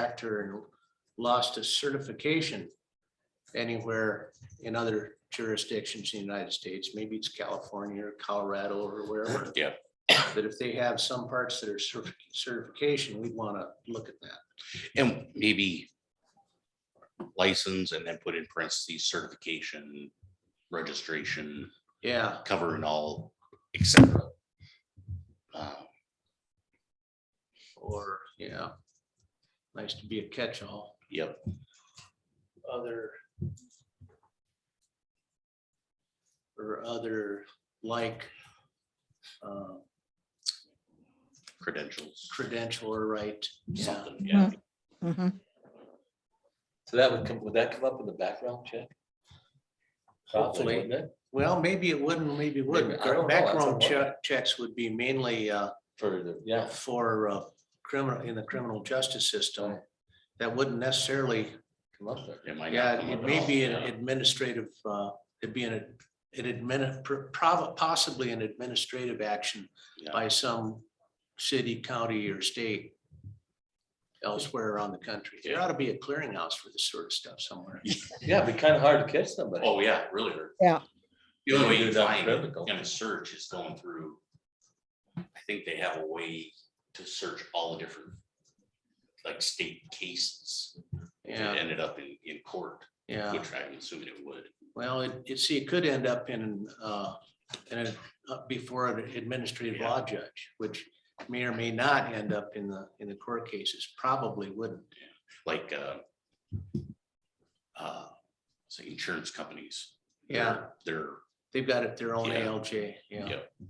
factor and lost its certification anywhere in other jurisdictions in the United States, maybe it's California or Colorado or wherever. Yeah. But if they have some parts that are certi- certification, we'd want to look at that. And maybe license and then put in parentheses certification, registration, Yeah, covering all, et cetera. Uh, or, yeah. Nice to be a catch-all. Yep, other or other like uh, credentials, credential or right. Yeah, something, yeah. Mhm. So that would come, would that come up in the background check? Probably, hopefully. wouldn't it? Well, maybe it wouldn't, maybe it wouldn't. Maybe, I don't know, that's Background a che- checks would be mainly uh, For the, yeah, for uh, criminal, in the criminal justice system. That wouldn't necessarily, come up there. It might not yeah, come up it at may all, be an yeah. administrative, uh, it'd be an, an admin, possibly an administrative action Yeah. by some city, county, or state elsewhere around the country. There ought to be a clearinghouse for this sort of stuff somewhere. Yeah, it'd be kind of hard to catch somebody. Oh, yeah, really hard. Yeah. The only way you Do that find it critical. in a search is going through. I think they have a way to search all the different, like state cases. that Yeah, Ended up in, in court, yeah. which I'm assuming it would. Well, it, it, see, it could end up in, uh, in a, up before an administrative law judge, which may or may not end up in the, in the court cases, probably wouldn't. like uh. Uh, say insurance companies. Yeah, They're, they've got it their own Yeah. ALJ, yeah. yeah.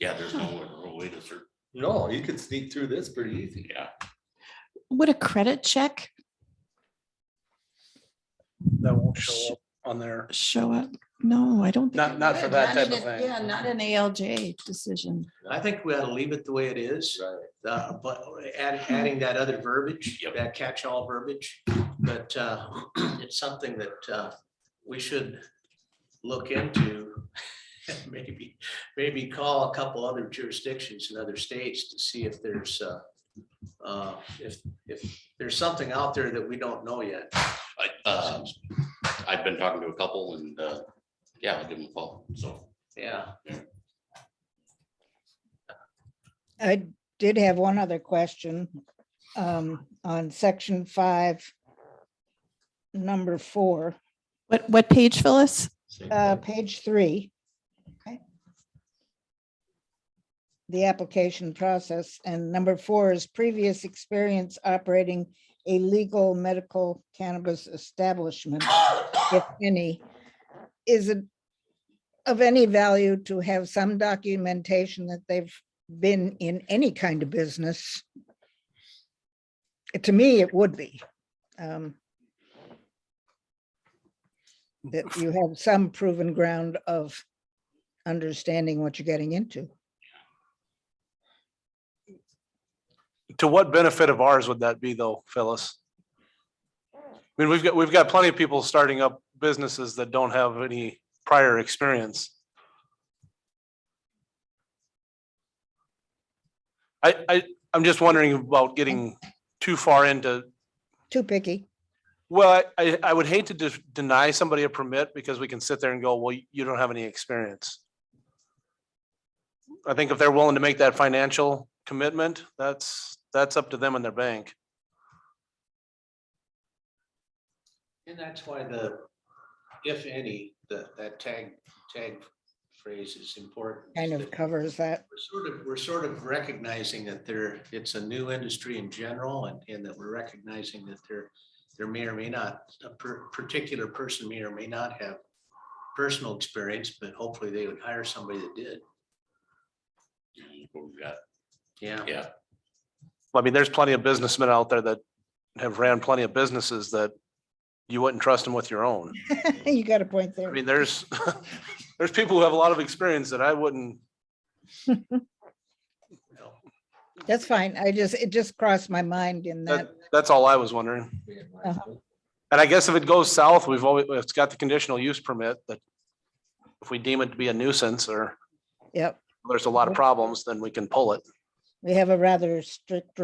Yeah, there's no real way to search, No, you could sneak through this pretty easy. yeah, Would a credit check that won't show up on there. show up? No, I don't. think Not- it not would. for Not that type of in a- thing. Yeah, not an ALJ decision. I think we ought to leave it the way it is. Right. Uh, but add, adding that other verbiage, Yep. that catch-all verbiage, but, uh, it's something that, uh, we should look into. Maybe, maybe call a couple other jurisdictions in other states to see if there's, uh, uh, if, if there's something out there that we don't know yet. I, uh, I've been talking to a couple and, uh, yeah, I'll give them a call, so. Yeah, I did have one other question um, on section five, number four, What, what page, Phyllis? uh, page three. Okay. The application process and number four is previous experience operating a legal medical cannabis establishment, if any. Is it of any value to have some documentation that they've been in any kind of business? To me, it would be. um, That you have some proven ground of understanding what you're getting into. To what benefit of ours would that be though, Phyllis? I mean, we've got, we've got plenty of people starting up businesses that don't have any prior experience. I, I, I'm just wondering about getting too far into Too picky. Well, I, I- I would hate to de- deny somebody a permit because we can sit there and go, well, you don't have any experience. I think if they're willing to make that financial commitment, that's, that's up to them and their bank. and that's why the, if any, the, that tag, tag phrase is important. kind of covers that. We're sort of, we're sort of recognizing that there, it's a new industry in general and, and that we're recognizing that there, there may or may not, a per- particular person may or may not have personal experience, but hopefully they would hire somebody that did. you know, what we've got. Yeah. Yeah, I mean, there's plenty of businessmen out there that have ran plenty of businesses that you wouldn't trust them with your own. You got a point I there. mean, there's, there's people who have a lot of experience that I wouldn't, That's fine. I just, it just crossed my mind in that. that, that's all I was wondering. Uh-huh. And I guess if it goes south, we've always, it's got the conditional use permit that if we deem it to be a nuisance or Yep. there's a lot of problems, then we can pull it. We have a rather strict